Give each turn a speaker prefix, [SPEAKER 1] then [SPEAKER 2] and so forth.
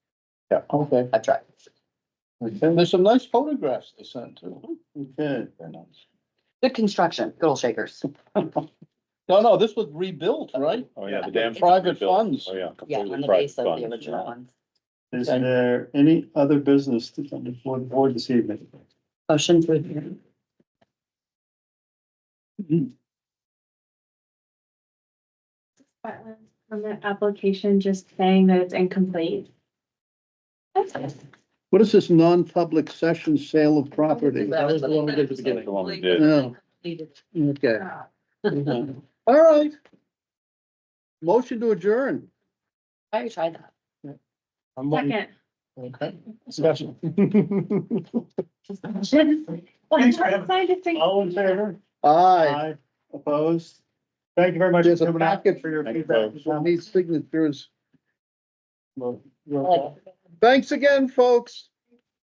[SPEAKER 1] Yeah, okay.
[SPEAKER 2] That's right.
[SPEAKER 1] And there's some nice photographs they sent too. Oh, Okay. very nice.
[SPEAKER 2] Good construction, good old shakers.
[SPEAKER 1] No, no, this was rebuilt, right?
[SPEAKER 3] Oh, yeah, the dam's
[SPEAKER 1] Private
[SPEAKER 3] rebuilt.
[SPEAKER 1] funds.
[SPEAKER 3] Oh, yeah.
[SPEAKER 2] Yeah,
[SPEAKER 3] completely
[SPEAKER 2] on the
[SPEAKER 3] private
[SPEAKER 2] base of the
[SPEAKER 3] funds,
[SPEAKER 2] original
[SPEAKER 3] yeah.
[SPEAKER 2] ones.
[SPEAKER 4] Is there any other business to come before the board this evening?
[SPEAKER 2] Motion to adjourn.
[SPEAKER 5] wetlands permit application just saying that it's incomplete. That's it.
[SPEAKER 1] What is this non-public session sale of property?
[SPEAKER 2] That was the one we did at the
[SPEAKER 3] That's The one we did.
[SPEAKER 1] Oh, okay. All right. Motion to adjourn.
[SPEAKER 2] I tried that.
[SPEAKER 5] Second.
[SPEAKER 1] Okay. Discussion.
[SPEAKER 5] Why not sign this thing?
[SPEAKER 4] All in favor?
[SPEAKER 1] Aye.
[SPEAKER 4] Opposed? Thank you very much. for
[SPEAKER 1] There's a
[SPEAKER 4] coming out,
[SPEAKER 1] packet.
[SPEAKER 4] For your
[SPEAKER 3] Thank you,
[SPEAKER 4] feedback.
[SPEAKER 3] folks.
[SPEAKER 1] I need signatures.
[SPEAKER 4] Well,
[SPEAKER 2] Like,
[SPEAKER 1] Thanks again, folks.